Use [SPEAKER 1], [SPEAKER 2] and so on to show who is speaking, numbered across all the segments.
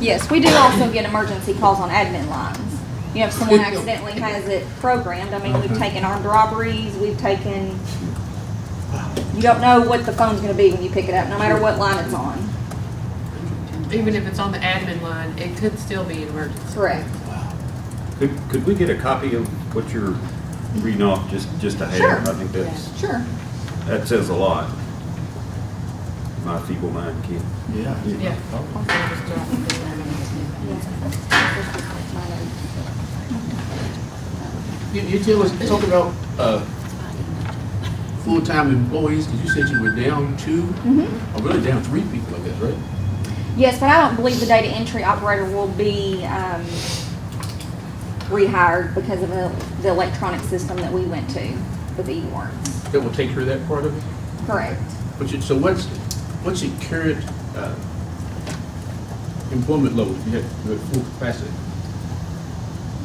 [SPEAKER 1] Yes, we do also get emergency calls on admin lines. You know, if someone accidentally has it programmed, I mean, we've
[SPEAKER 2] Okay.
[SPEAKER 1] taken armed robberies, we've taken, you don't know what the phone's gonna be when you pick it up, no matter what line it's on.
[SPEAKER 3] Even if it's on the admin line, it could still be an emergency.
[SPEAKER 1] Correct.
[SPEAKER 4] Could, could we get a copy of what you're reading off, just, just a
[SPEAKER 1] Sure.
[SPEAKER 4] header? I think that's,
[SPEAKER 1] Sure.
[SPEAKER 4] that says a lot. My feeble mind can't.
[SPEAKER 3] Yeah.
[SPEAKER 2] You, you tell us, talk about, uh, full-time employees, because you said you were down two, or really down three people, I guess, right?
[SPEAKER 1] Mm-hmm. Yes, but I don't believe the data entry operator will be, um, rehired because of the, the electronic system that we went to with the warrants.
[SPEAKER 2] That will take care of that part of it?
[SPEAKER 1] Correct.
[SPEAKER 2] But you, so what's, what's your current, uh, employment level, you have, you have full capacity?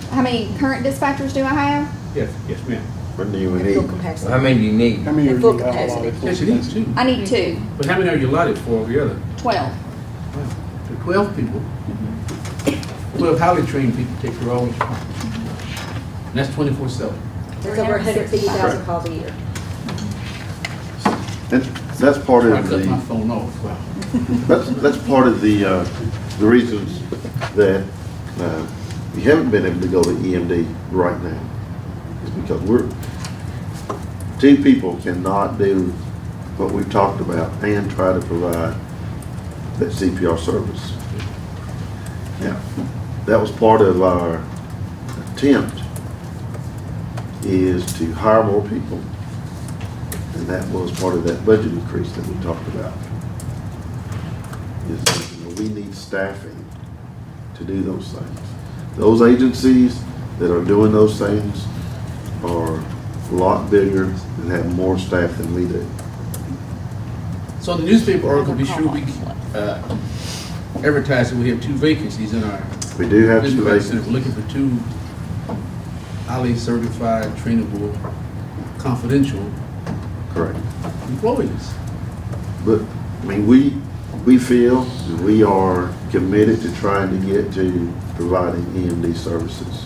[SPEAKER 1] How many current dispatchers do I have?
[SPEAKER 2] Yes, yes, ma'am.
[SPEAKER 5] What do you need?
[SPEAKER 6] Full capacity.
[SPEAKER 5] How many you need?
[SPEAKER 7] How many are
[SPEAKER 6] At
[SPEAKER 7] you
[SPEAKER 6] full
[SPEAKER 7] allowed
[SPEAKER 6] capacity.
[SPEAKER 7] at full
[SPEAKER 2] Yes, it is,
[SPEAKER 7] capacity?
[SPEAKER 2] too.
[SPEAKER 1] I need two,
[SPEAKER 3] Mm-hmm.
[SPEAKER 2] But how many are you allotted for over the other?
[SPEAKER 1] twelve.
[SPEAKER 2] The Twelve people. Twelve highly trained people take their own responsibility. And that's twenty-four seven.
[SPEAKER 6] There's over hundred fifty thousand calls a year.
[SPEAKER 5] That's, that's part
[SPEAKER 2] I
[SPEAKER 5] of
[SPEAKER 2] cut my
[SPEAKER 5] the,
[SPEAKER 2] phone off, wow.
[SPEAKER 5] that's, that's part of the, uh, the reasons that, uh, we haven't been able to go to EMD right now. Is because we're, two people cannot do what we've talked about and try to provide that CPR service. Now, that was part of our attempt is to hire more people. And that was part of that budget increase that we talked about. Is, that, you know, we need staffing to do those things. Those agencies that are doing those things are a lot bigger and have more staff than we do.
[SPEAKER 2] So the newspaper article, be sure we, uh, advertise that we have two vacancies in our
[SPEAKER 5] We do have
[SPEAKER 2] Mr.
[SPEAKER 5] two
[SPEAKER 2] Vice Senator,
[SPEAKER 5] vacancies.
[SPEAKER 2] we're looking for two highly certified, trainable, confidential
[SPEAKER 5] Correct.
[SPEAKER 2] employees.
[SPEAKER 5] But, I mean, we, we feel that we are committed to trying to get to providing EMD services.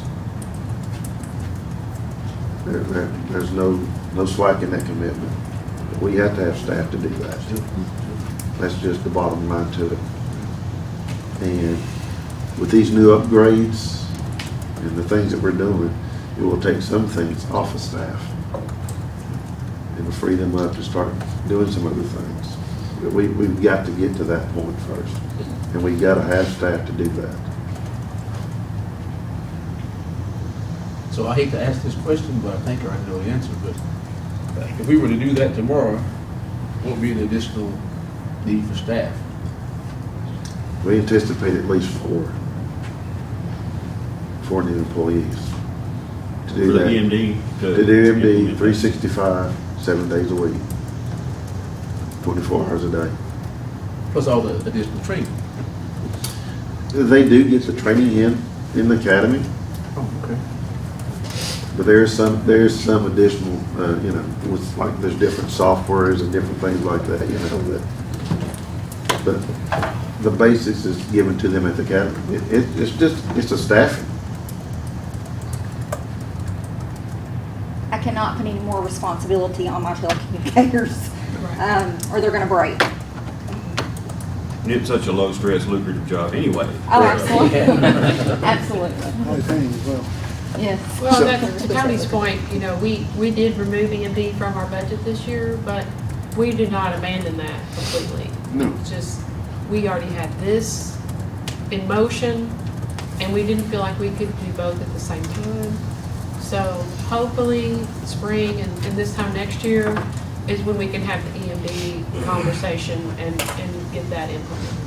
[SPEAKER 5] There, there, there's no, no slack in that commitment. We have to have staff to do that. That's just the bottom line to it. And with these new upgrades and the things that we're doing, it will take some things off of staff and free them up to start doing some other things. But we, we've got to get to that point first, and we gotta have staff to do that.
[SPEAKER 2] So I hate to ask this question, but I think I know the answer, but uh, if we were to do that tomorrow, what would be the additional need for staff?
[SPEAKER 5] We anticipate at least four, four new employees to
[SPEAKER 4] For
[SPEAKER 5] do
[SPEAKER 4] the uh,
[SPEAKER 5] that.
[SPEAKER 4] EMD to.
[SPEAKER 5] To do MD
[SPEAKER 4] implement
[SPEAKER 5] three
[SPEAKER 4] that.
[SPEAKER 5] sixty-five, seven days a week, twenty-four hours a day.
[SPEAKER 2] Plus all the additional training.
[SPEAKER 5] They do get the training in, in the academy,
[SPEAKER 2] Oh, okay.
[SPEAKER 5] But there is some, there is some additional, uh, you know, with, like, there's different softwares and different things like that, you know, that, but the basics is given to them at the academy. It, it- it's just, it's a staffing.
[SPEAKER 1] I cannot put any more responsibility on my telecommunicators, um, or they're gonna break.
[SPEAKER 4] And It's such a low-stress lucrative job anyway.
[SPEAKER 1] Oh, absolutely. Absolutely.
[SPEAKER 7] Probably paying as well.
[SPEAKER 1] Yes.
[SPEAKER 3] Well,
[SPEAKER 5] So-
[SPEAKER 3] that's to Tony's point, you know, we, we did remove EMD from our budget this year, but we did not abandon that completely.
[SPEAKER 5] No.
[SPEAKER 3] It's Just, we already had this in motion, and we didn't feel like we could do both at the same time. So hopefully, spring and, and this time next year is when we can have the EMD conversation and, and get that implemented.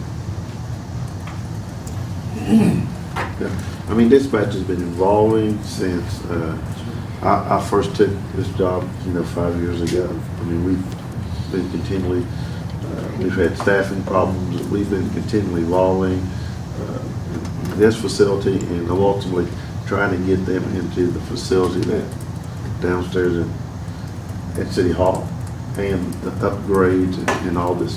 [SPEAKER 5] Yeah. I mean, dispatch has been evolving since, uh, I, I first took this job, you know, five years ago. I mean, we've been continually, uh, we've had staffing problems, we've been continually evolving, uh, this facility and ultimately trying to get them into the facility that downstairs in, at City Hall and the upgrades and all this